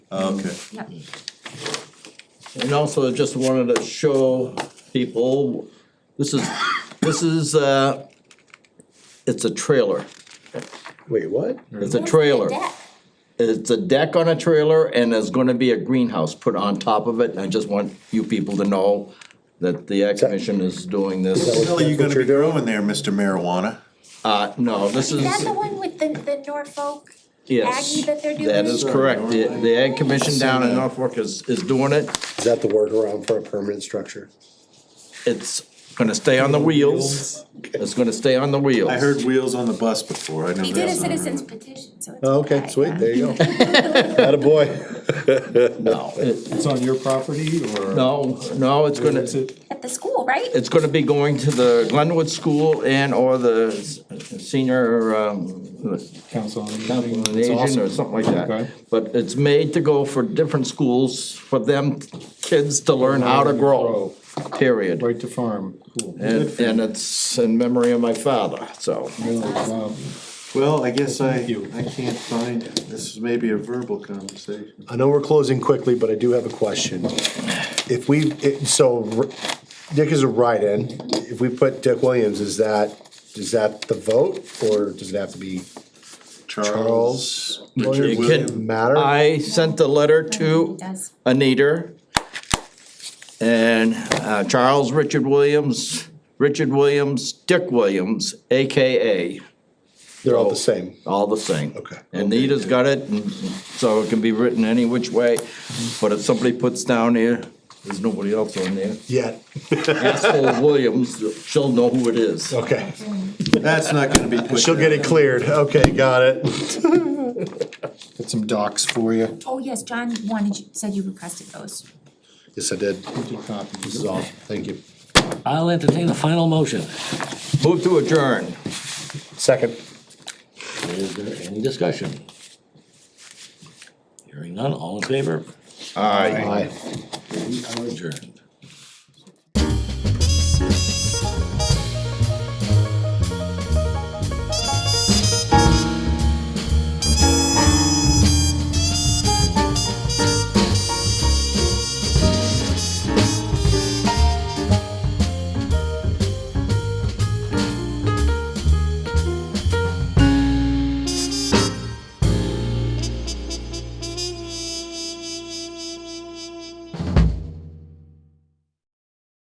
Okay, Yep. And also just wanted to show people, this is, this is, uh, it's a trailer. Wait, what? It's a trailer. Deck. It's a deck on a trailer and there's gonna be a greenhouse put on top of it. I just want you people to know that the Ag Commission is doing Is this. that What are you That's gonna what you're be growing there, Mr. Marijuana? Uh, no, this Is that is, the one with the, the Norfolk Aggie yes. that they're doing? That is correct. The, the Ag Commission down in Yeah. Norfolk is, is doing it. Is that the workaround for a permanent structure? It's gonna stay on the wheels. It's gonna stay on the wheels. I heard wheels on the bus before, I know He did a that's not. citizen's petition, so it's. Oh, okay, okay, sweet, yeah. there you go. Attaboy. No, it- It's on your property or? no, no, it's gonna, Is it- At the school, right? it's gonna be going to the Glenwood School and or the s- senior, um, Council on Aging. Council on It's Aging awesome. or something like that. Okay. But it's made to go for different schools, for them kids to learn how to grow, period. Right to farm, cool. And, and it's in memory of my father, so. Really, wow. Well, I guess I, you. I can't find, it. this is maybe a verbal conversation. I know we're closing quickly, but I do have a question. If we, it- so R- Dick is a write-in, if we put Dick Williams, is that, is that the vote, or does it have to be Charles? It Williams? can- Does it Matter? I sent the letter to He does. Anita and uh, Charles Richard Williams, Richard Williams, Dick Williams, AKA, They're all the same. all the same. Okay. Anita's got it, and so it can be written any which way, but if somebody puts down there, there's nobody else on there, Yeah, asshole Williams, she'll know who it is. okay. That's not gonna be put. She'll get it cleared, okay, got it. Got some docs for you. Oh, yes, John wanted, you said you requested those. Yes, I did. Get This copies. is awesome, thank you. I'll entertain a final motion. Move to adjourn. Second. Is there any discussion? Hearing none, all in favor? All right. Aye. We are adjourned.